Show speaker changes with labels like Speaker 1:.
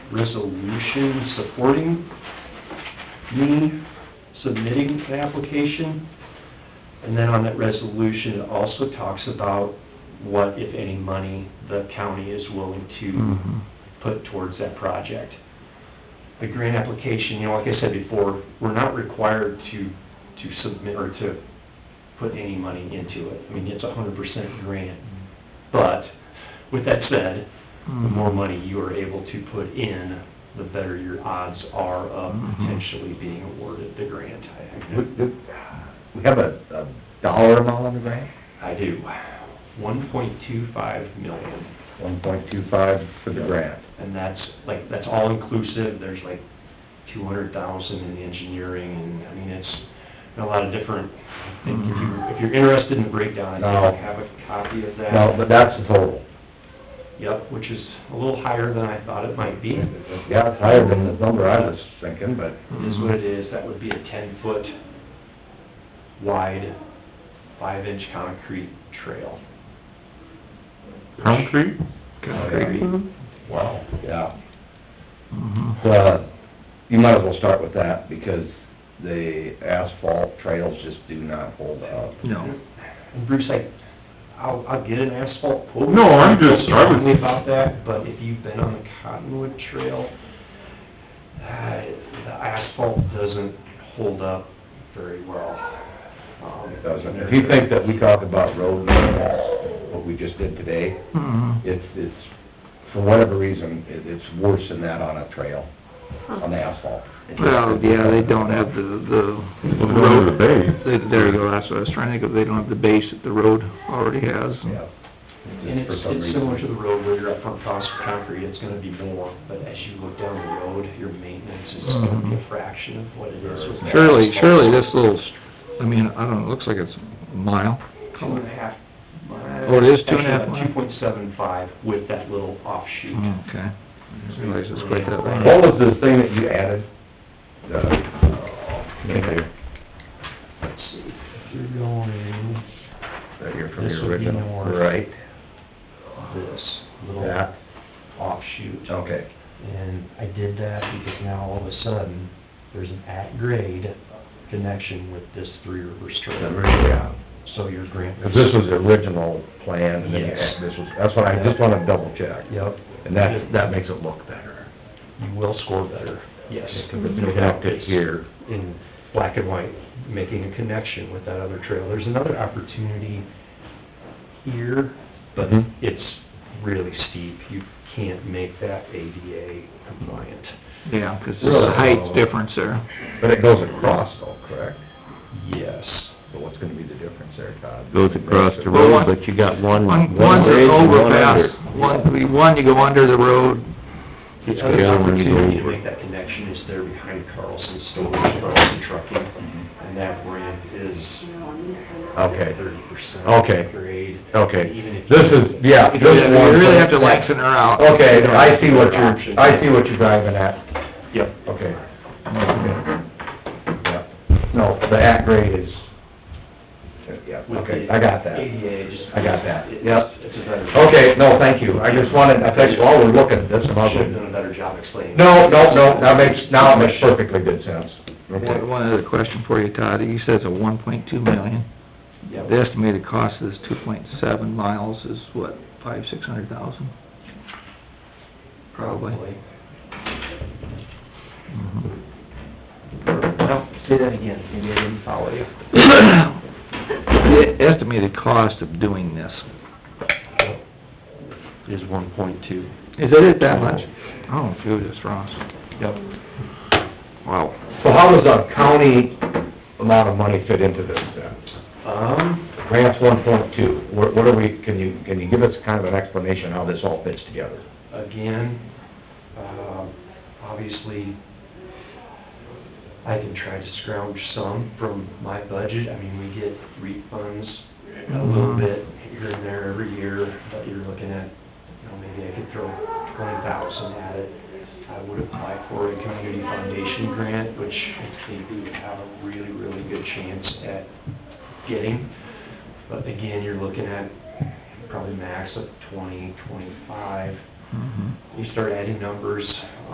Speaker 1: resolution supporting me submitting the application. And then on that resolution, it also talks about what, if any, money the county is willing to
Speaker 2: Mm-hmm.
Speaker 1: put towards that project. The grant application, you know, like I said before, we're not required to, to submit or to put any money into it. I mean, it's a hundred percent grant. But with that said, the more money you are able to put in, the better your odds are of
Speaker 3: Mhm.
Speaker 1: potentially being awarded the grant.
Speaker 2: We we have a, a dollar amount on the grant,
Speaker 1: I do. One point two five million.
Speaker 2: one point two five for the grant.
Speaker 1: And that's, like, that's all inclusive, there's like two hundred thousand in engineering, and, I mean, it's a lot of different, I think if you, if you're interested in the breakdown, I
Speaker 2: No.
Speaker 1: do have a copy of that.
Speaker 2: No, but that's the total.
Speaker 1: Yep, which is a little higher than I thought it might be.
Speaker 2: Yeah, it's higher than the number I was thinking, but
Speaker 1: It
Speaker 4: Mm-hmm.
Speaker 1: is what it is, that would be a ten-foot wide, five-inch concrete trail.
Speaker 3: Concrete?
Speaker 2: Concrete. Wow. Yeah.
Speaker 3: Mhm.
Speaker 2: The, you might as well start with that, because the asphalt trails just do not hold up.
Speaker 3: No.
Speaker 1: And Bruce, I, I'll, I'll get an asphalt quote.
Speaker 3: No, I'm just- I was-
Speaker 1: Tell me about that, but if you've been on the Cottonwood Trail, uh, the asphalt doesn't hold up very well. Um,
Speaker 2: It doesn't. If you think that we talk about road maintenance, what we just did today,
Speaker 3: Mhm.
Speaker 2: it's, it's, for whatever reason, it, it's worse than that on a trail, on the asphalt.
Speaker 3: Well, yeah, they don't have the, the...
Speaker 4: Well, they don't have the base.
Speaker 3: They- There you go, that's what I was trying to think of, they don't have the base that the road already has.
Speaker 2: Yeah.
Speaker 1: And it's,
Speaker 2: for some
Speaker 1: it's
Speaker 2: reason.
Speaker 1: similar to the road where you're upfront cost for concrete, it's gonna be more, but as you look down the road, your maintenance is gonna be a fraction of what it is with. the
Speaker 3: Surely,
Speaker 1: asphalt.
Speaker 3: surely this little, s- I mean, I don't know, it looks like it's a mile.
Speaker 1: Two and a half miles.
Speaker 3: Oh, it is two and a half miles?
Speaker 1: Two point seven five with that little offshoot.
Speaker 3: Oh, Okay. I didn't realize it's quite that long.
Speaker 2: What was the thing that you added? The, uh,
Speaker 1: Let's see, if you're going
Speaker 2: Right here from
Speaker 1: This
Speaker 2: your
Speaker 1: would be
Speaker 2: original,
Speaker 1: north.
Speaker 2: right?
Speaker 1: this little
Speaker 2: That,
Speaker 1: offshoot.
Speaker 2: okay.
Speaker 1: And I did that because now all of a sudden, there's an at-grade connection with this Three Rivers
Speaker 2: Remember,
Speaker 1: Trail.
Speaker 2: yeah.
Speaker 1: So your grant.
Speaker 2: 'Cause this was the original plan, and then you
Speaker 1: Yes.
Speaker 2: add this was, that's what I just wanna double check.
Speaker 1: Yep.
Speaker 2: And that, that makes it look better.
Speaker 1: You will score better. Yes.
Speaker 2: Because it's connected here.
Speaker 1: in black and white, making a connection with that other trail. There's another opportunity here, but
Speaker 2: Mhm.
Speaker 1: it's really steep. You can't make that ADA compliant.
Speaker 3: Yeah, 'cause there's a height difference there.
Speaker 2: But it goes across though, correct?
Speaker 1: Yes.
Speaker 2: So what's gonna be the difference there, Todd?
Speaker 4: Goes across the road, but you got one,
Speaker 3: One,
Speaker 4: one
Speaker 3: one's
Speaker 4: raised
Speaker 3: an
Speaker 4: and one
Speaker 3: overpass,
Speaker 4: under.
Speaker 3: one, we- one you go under the road,
Speaker 1: The
Speaker 4: Yeah,
Speaker 1: other
Speaker 4: when you go
Speaker 1: opportunity to
Speaker 4: over.
Speaker 1: make that connection is there behind Carlson's storage, Carlson Trucking, and that ramp is
Speaker 2: Mm-hmm. Okay.
Speaker 1: thirty percent
Speaker 2: Okay.
Speaker 1: grade. And even
Speaker 2: Okay,
Speaker 1: if
Speaker 2: this
Speaker 1: you-
Speaker 2: is, yeah.
Speaker 3: you
Speaker 2: this one-
Speaker 3: really have to lengthen her out.
Speaker 2: Okay, I see what you're, I see what you're driving at,
Speaker 1: Yep.
Speaker 2: okay. Yeah. No, the at grade is, yeah,
Speaker 1: With
Speaker 2: okay,
Speaker 1: the
Speaker 2: I got that.
Speaker 1: ADA, just.
Speaker 2: I got that.
Speaker 1: it's-
Speaker 2: Yep.
Speaker 1: It's a better.
Speaker 2: Okay, no, thank you, I just wanted, I think while we're looking at this, I'm
Speaker 1: Should have
Speaker 2: also...
Speaker 1: done a better job explaining.
Speaker 2: No, no, no, that makes, now it makes perfectly good sense.
Speaker 3: One one other question for you, Todd, you said it's a one point two million.
Speaker 1: Yep.
Speaker 3: The estimated cost of this two point seven miles is what, five, six hundred thousand? Probably. Mhm.
Speaker 1: Well, say that again, maybe I didn't follow you.
Speaker 3: The estimated cost of doing this,
Speaker 1: Is one point two.
Speaker 3: is it that much? Oh, shoot, it's Ross.
Speaker 1: Yep.
Speaker 3: Wow.
Speaker 2: So how does a county amount of money fit into this then?
Speaker 1: Um,
Speaker 2: Grants one point two, what what are we, can you, can you give us kind of an explanation how this all fits together?
Speaker 1: again, um, obviously, I can try to scrounge some from my budget. I mean, we get refunds a little
Speaker 3: Mhm.
Speaker 1: bit here and there every year, but you're looking at, you know, maybe I could throw twenty thousand at it. I would apply for a community foundation grant, which I think we would have a really, really good chance at getting. But again, you're looking at probably max of twenty, twenty-five.
Speaker 3: Mhm.
Speaker 1: You start adding numbers,